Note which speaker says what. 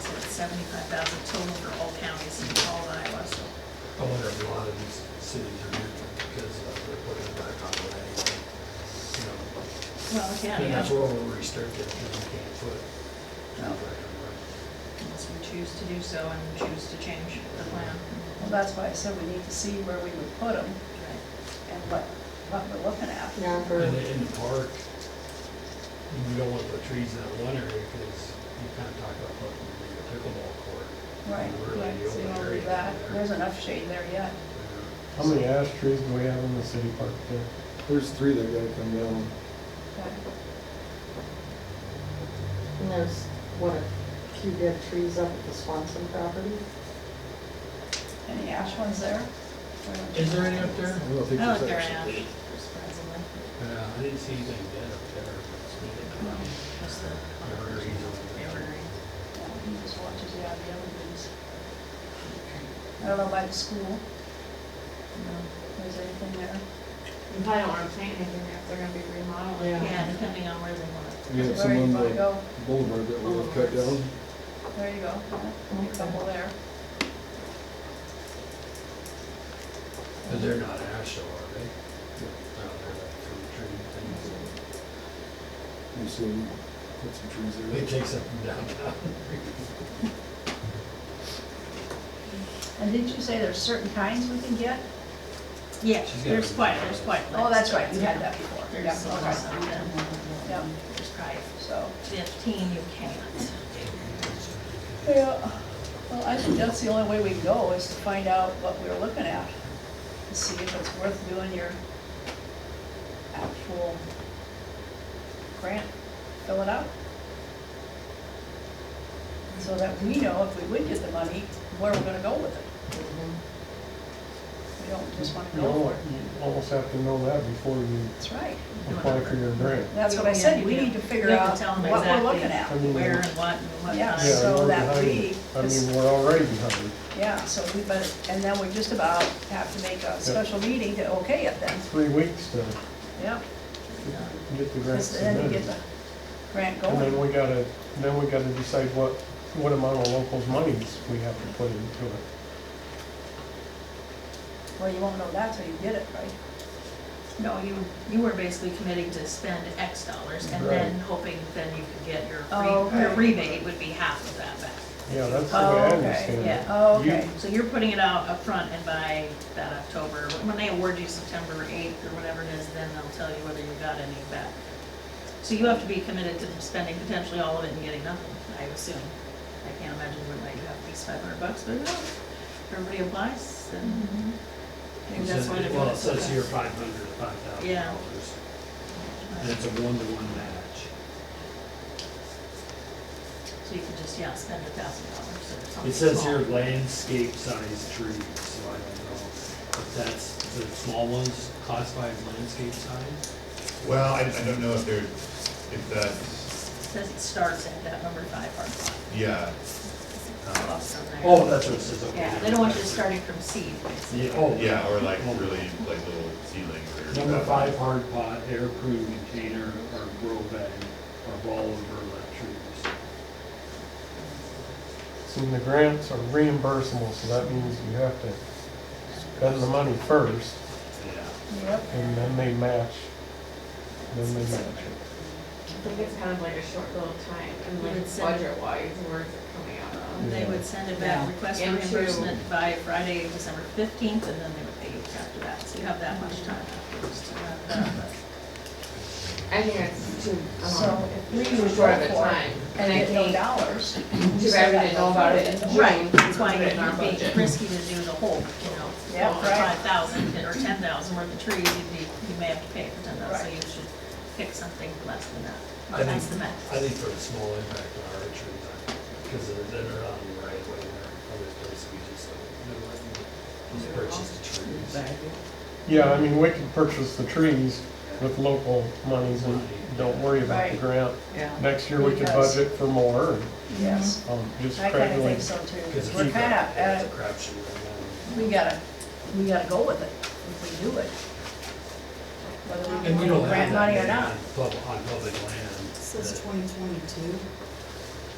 Speaker 1: seventy-five thousand total for all counties in all of Iowa, so.
Speaker 2: I wonder if a lot of these cities are different because uh, they're putting back on the anyway. You know,
Speaker 1: Well, yeah,
Speaker 2: And that's
Speaker 1: yeah,
Speaker 2: where we're restricted, because we can't put outright on right.
Speaker 1: unless we choose to do so and choose to change the plan.
Speaker 3: Well, that's why I said we need to see where we would put them and what, what we're looking at.
Speaker 4: number,
Speaker 2: And in the park, you don't want to put trees in that one area because you kind of talk about putting a pickleball court.
Speaker 3: Right,
Speaker 2: Really,
Speaker 3: yeah,
Speaker 2: the
Speaker 3: so you
Speaker 2: open
Speaker 3: don't do
Speaker 2: area.
Speaker 3: that. There's
Speaker 2: there.
Speaker 3: enough shade there yet.
Speaker 5: How many ash trees do we have in the city park there? There's three that gotta come down.
Speaker 4: and there's, what, a few dead trees up at the Swanson property?
Speaker 3: Any ash ones there?
Speaker 2: Is there any up
Speaker 5: I
Speaker 2: there?
Speaker 5: don't
Speaker 1: I don't
Speaker 5: think there's
Speaker 1: think they're ash,
Speaker 5: actually-
Speaker 1: surprisingly.
Speaker 2: Yeah, Uh, I didn't see anything dead up there.
Speaker 1: Um, Just the
Speaker 2: Evergreens over there.
Speaker 1: evergreen.
Speaker 3: Yeah, He just watches, yeah, the other ones. I don't know by the school,
Speaker 1: No.
Speaker 3: if there's anything there.
Speaker 6: You probably don't wanna plant anything there if they're gonna be remodeling.
Speaker 1: Oh, Yeah, depending on where they want it.
Speaker 5: We have
Speaker 3: Where
Speaker 5: some
Speaker 3: you
Speaker 5: on
Speaker 3: wanna
Speaker 5: the
Speaker 3: go,
Speaker 5: boulevard that we have cut down.
Speaker 3: there you go, yeah, a couple there.
Speaker 2: But they're not ash though, are they? No, they're like fruit tree things.
Speaker 5: You see, we put some trees there.
Speaker 2: It takes up from downtown.
Speaker 3: And didn't you say there's certain kinds we can get?
Speaker 1: Yeah,
Speaker 2: She's got
Speaker 1: there's
Speaker 2: them.
Speaker 1: quite, there's quite.
Speaker 3: Oh, that's right, you
Speaker 1: you
Speaker 3: had that before. Yeah,
Speaker 1: There's some,
Speaker 3: okay.
Speaker 1: some, then
Speaker 3: Yeah,
Speaker 1: there's probably
Speaker 3: so.
Speaker 1: fifteen you can't.
Speaker 3: Yeah, well, I think that's the only way we can go, is to find out what we're looking at, and see if it's worth doing your actual grant, fill it out. So that we know if we would get the money, where we're gonna go with it. We don't just wanna
Speaker 5: You
Speaker 3: go for
Speaker 5: know,
Speaker 3: it.
Speaker 5: you almost have to know that before you
Speaker 3: That's right.
Speaker 5: apply for your grant.
Speaker 3: That's what I said, we need to figure
Speaker 1: We have to
Speaker 3: out
Speaker 1: tell them
Speaker 3: what we're
Speaker 1: exactly.
Speaker 3: looking at.
Speaker 5: I mean,
Speaker 1: Where
Speaker 5: yeah,
Speaker 1: and what and what
Speaker 3: Yeah,
Speaker 1: time.
Speaker 3: so
Speaker 5: we're
Speaker 3: that
Speaker 5: behind-
Speaker 3: we-
Speaker 5: I mean, we're already behind.
Speaker 3: Yeah, so we better, and then we just about have to make a special meeting to okay it then,
Speaker 5: Three weeks to
Speaker 3: yeah.
Speaker 5: get the grant
Speaker 3: Just then you get
Speaker 5: submitted.
Speaker 3: the grant
Speaker 5: And then
Speaker 3: going.
Speaker 5: we gotta, then we gotta decide what, what amount of locals' monies we have to put into it.
Speaker 3: Well, you won't know that till you get it, right?
Speaker 1: No, you, you were basically committing to spend X dollars and then
Speaker 5: Right.
Speaker 1: hoping then you could get your,
Speaker 3: Oh,
Speaker 1: re- your
Speaker 3: okay.
Speaker 1: rebate would be half of that back.
Speaker 5: Yeah, that's the way
Speaker 3: Oh,
Speaker 5: I
Speaker 3: okay,
Speaker 5: understand it.
Speaker 1: yeah.
Speaker 3: Oh,
Speaker 5: You-
Speaker 3: okay.
Speaker 1: So you're putting it out up front, and by that October, when they award you September eighth or whatever it is, then they'll tell you whether you got any back. So you have to be committed to spending potentially all of it and getting nothing, I assume. I can't imagine we might have at least five hundred bucks, but no, if everybody applies, then
Speaker 2: Mm-hmm.
Speaker 1: maybe that's why they're doing
Speaker 2: Well,
Speaker 1: it
Speaker 2: it
Speaker 1: so
Speaker 2: says
Speaker 1: fast.
Speaker 2: here five hundred, five thousand
Speaker 1: Yeah.
Speaker 2: dollars. And it's a one-to-one match.
Speaker 1: So you could just, yeah, spend a thousand dollars or something.
Speaker 2: It says
Speaker 1: small.
Speaker 2: here landscape-sized trees, so I don't know if that's, the small ones classified as landscape size?
Speaker 7: Well, I, I don't know if there, if that's,
Speaker 1: Says it starts at that number five parking lot,
Speaker 7: yeah. Um,
Speaker 1: across from there.
Speaker 2: Oh, that's what it says, okay.
Speaker 1: Yeah, they don't want you starting from seed, basically.
Speaker 2: Yeah, oh.
Speaker 7: Yeah, or like
Speaker 2: Oh.
Speaker 7: really like little seedlings or.
Speaker 2: Number five, hard pot, air proof container, or grow bag, or ball of burlap trees.
Speaker 5: So the grants are reimbursable, so that means you have to spend the money first,
Speaker 2: Yeah.
Speaker 3: Yep.
Speaker 5: and then they match, then they match it.
Speaker 6: I think it's kind of like a short little time, and
Speaker 1: You
Speaker 6: like
Speaker 1: would send-
Speaker 6: budget wise, where's it coming out of?
Speaker 1: They would send it back,
Speaker 4: Yeah.
Speaker 1: request for
Speaker 6: And to-
Speaker 1: reimbursement by Friday, December fifteenth, and then they would pay you after that. So you have that much time afterwards to have that.
Speaker 6: I think that's too, um,
Speaker 3: So if we
Speaker 6: too
Speaker 3: would
Speaker 6: short
Speaker 3: go
Speaker 6: of a
Speaker 3: for it
Speaker 6: time, and
Speaker 3: and
Speaker 6: I
Speaker 3: get no
Speaker 6: think,
Speaker 3: dollars.
Speaker 6: too bad we didn't know about it in June.
Speaker 1: Right, that's why
Speaker 6: Put it in our
Speaker 1: it'd
Speaker 6: budget.
Speaker 1: be risky to do the whole, you know,
Speaker 3: Yeah, right.
Speaker 1: five thousand or ten thousand worth of trees, you'd be, you may have to pay for ten thousand, so you should pick something less than that.
Speaker 2: I
Speaker 1: Or that's the
Speaker 2: think-
Speaker 1: max.
Speaker 2: I think for a small impact on our trees, because they're, they're not on the right way there, other places we just don't, they're letting, just purchase the trees.
Speaker 5: Yeah, I mean, we can purchase the trees with local monies and don't worry about the
Speaker 3: Right.
Speaker 5: grant.
Speaker 4: Yeah.
Speaker 5: Next year, we could
Speaker 3: Because-
Speaker 5: budget for more, and,
Speaker 3: Yes.
Speaker 5: um, just
Speaker 3: I kind of
Speaker 5: gradually.
Speaker 3: think so
Speaker 2: Because
Speaker 3: too.
Speaker 2: it's
Speaker 3: We're
Speaker 2: a
Speaker 3: kind
Speaker 2: crap-
Speaker 3: of,
Speaker 2: it's a
Speaker 3: uh,
Speaker 2: crapshoot right
Speaker 3: we gotta, we gotta go with it if we do it. Whether
Speaker 2: now. And we
Speaker 3: we
Speaker 2: don't
Speaker 3: want
Speaker 2: have
Speaker 3: grant
Speaker 2: that
Speaker 3: money or
Speaker 2: many
Speaker 3: not.
Speaker 2: on public, on public land.
Speaker 8: It says
Speaker 2: that-
Speaker 8: twenty twenty-two.